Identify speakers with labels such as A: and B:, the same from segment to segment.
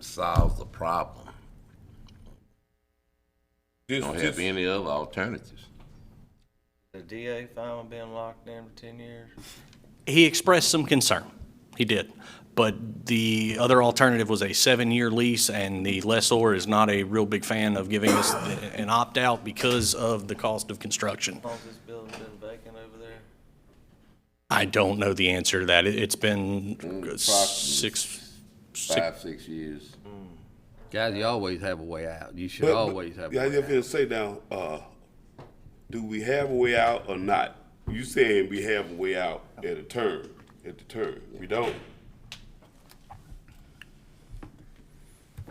A: solves the problem.
B: Just,
A: Don't
B: just,
A: have any other alternatives.
C: The DA fine with being locked in for ten years?
D: He expressed some concern. He did. But the other alternative was a seven-year lease, and the lessor is not a real big fan of giving us the- an opt-out because of the cost of construction.
C: How long's this building been vacant over there?
D: I don't know the answer to that. It- It's been six, six,
A: Five, six years.
E: Guys, you always have a way out. You should
B: but,
E: always have.
B: yeah, I
E: a way
B: just
E: out.
B: feel say now, uh, do we have a way out or not? You saying we have a way out at a turn, at the turn. We don't.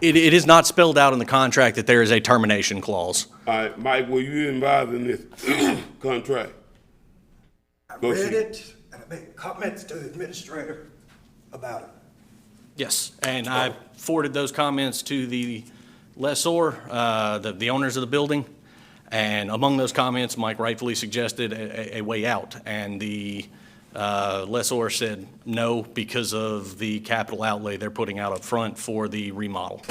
D: it, it is not spelled out in the contract that there is a termination clause.
B: All right, Mike, were you involved in this contract? Go
F: read
B: see.
F: it, and I made comments to the administrator about it.
D: Yes, and I forwarded those comments to the lessor, uh, the the owners of the building, and among those comments, Mike rightfully suggested a a- a way out, and the uh, lessor said no because of the capital outlay they're putting out up front for the remodel.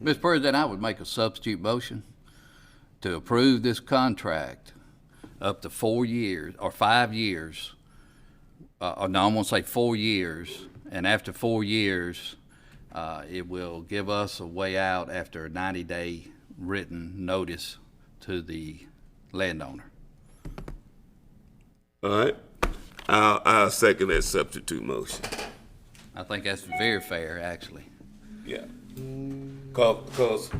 E: Mr. President, I would make a substitute motion to approve this contract up to four years or five years. Uh, uh, no, I'm gonna say four years. And after four years, uh, it will give us a way out after a ninety-day written notice to the landowner.
B: All right. I'll, I'll second that substitute motion.
E: I think that's very fair, actually.
B: Yeah. Cause, cause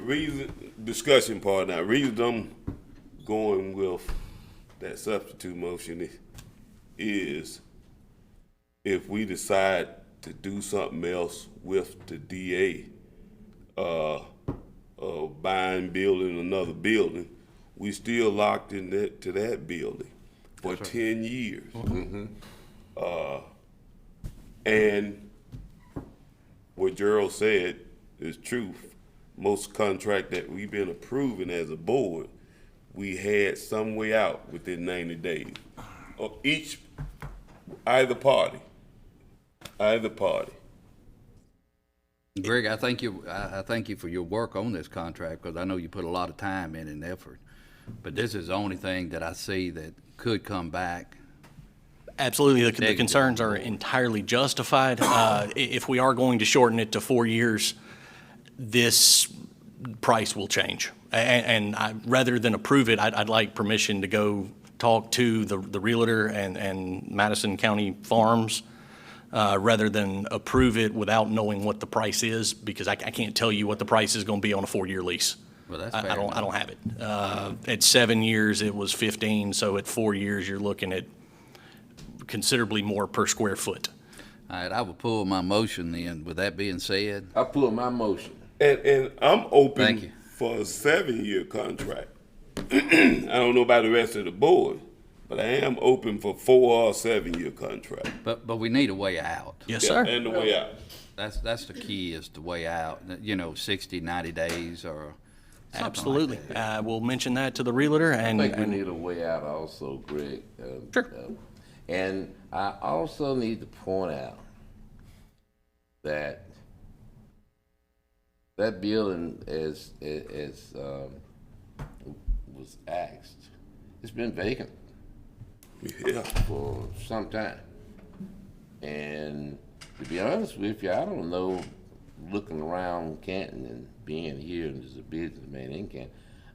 B: reason, discussion part now, reason I'm going with that substitute motion is, is if we decide to do something else with the DA, uh, of buying, building another building, we still locked in that, to that building for ten years. Uh, and what Gerald said is truth. Most contract that we've been approving as a board, we had some way out within ninety days. Or each, either party, either party.
E: Greg, I thank you, I, I thank you for your work on this contract, because I know you put a lot of time in and effort. But this is the only thing that I see that could come back.
D: Absolutely, the- the
E: Negative.
D: concerns are entirely justified. Uh, i- If we are going to shorten it to four years, this price will change. A- a- And I, rather than approve it, I'd, I'd like permission to go talk to the the Realtor and, and Madison County Farms, uh, rather than approve it without knowing what the price is, because I, I can't tell you what the price is going to be on a four-year lease.
E: Well, that's
D: I-
E: fair
D: I don't, I
E: enough.
D: don't have it. Uh, At seven years, it was 15, so at four years, you're looking at considerably more per square foot.
E: All right, I will pull my motion then. With that being said,
F: Oh.
A: I pull my motion.
B: And, and I'm open
E: Thank you.
B: for a seven-year contract. I don't know about the rest of the board, but I am open for four or seven-year contract.
E: but, but we need a way out.
D: Yes, sir.
B: And the way out.
E: That's, that's the key is the way out, you know, 60, 90 days or something like that.
D: Absolutely. I will mention that to the Realtor and.
A: I think we
D: and-
A: need a way out also, Greg. Uh,
D: Sure.
A: uh, And I also need to point out that that building is, i- is, um, was axed. It's been vacant
B: Yeah.
A: for some time. And to be honest with you, I don't know, looking around Canton and being here and as a businessman in Canton,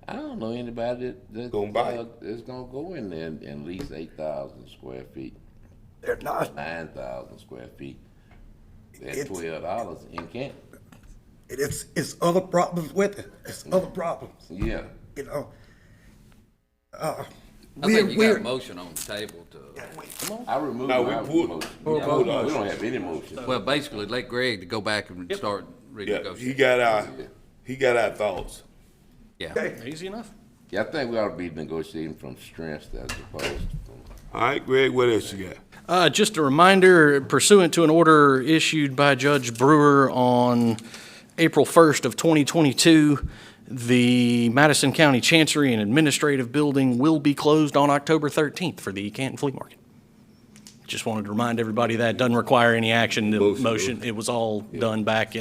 A: I don't know anybody that, that
B: Gonna buy
A: uh, that's gonna go in there and, and lease eight thousand square feet,
F: They're not,
A: nine thousand square feet at
F: It's-
A: twelve dollars in Canton.
F: it's, it's other problems with it, it's other problems,
A: Yeah,
F: you know? Uh,
E: I think
F: We're,
E: you got a
F: we're,
E: motion on the table to,
A: I removed
B: No, we
A: my
B: pulled-
A: motion.
B: we
A: We
B: pulled
A: don't- we
B: ours.
A: don't have any motion.
E: well, basically let Greg to go back and start
B: Yeah, he
E: renegotiating.
B: got our, he got our thoughts.
E: Yeah,
D: Easy enough.
A: Yeah, I think we ought to be negotiating from strengths as opposed to from
B: All right, Greg, what else you got?
D: Uh, Just a reminder, pursuant to an order issued by Judge Brewer on April 1st of 2022, the Madison County Chancery and Administrative Building will be closed on October 13th for the Canton Flea Market. Just wanted to remind everybody that doesn't require any action, the motion, it was all done back in.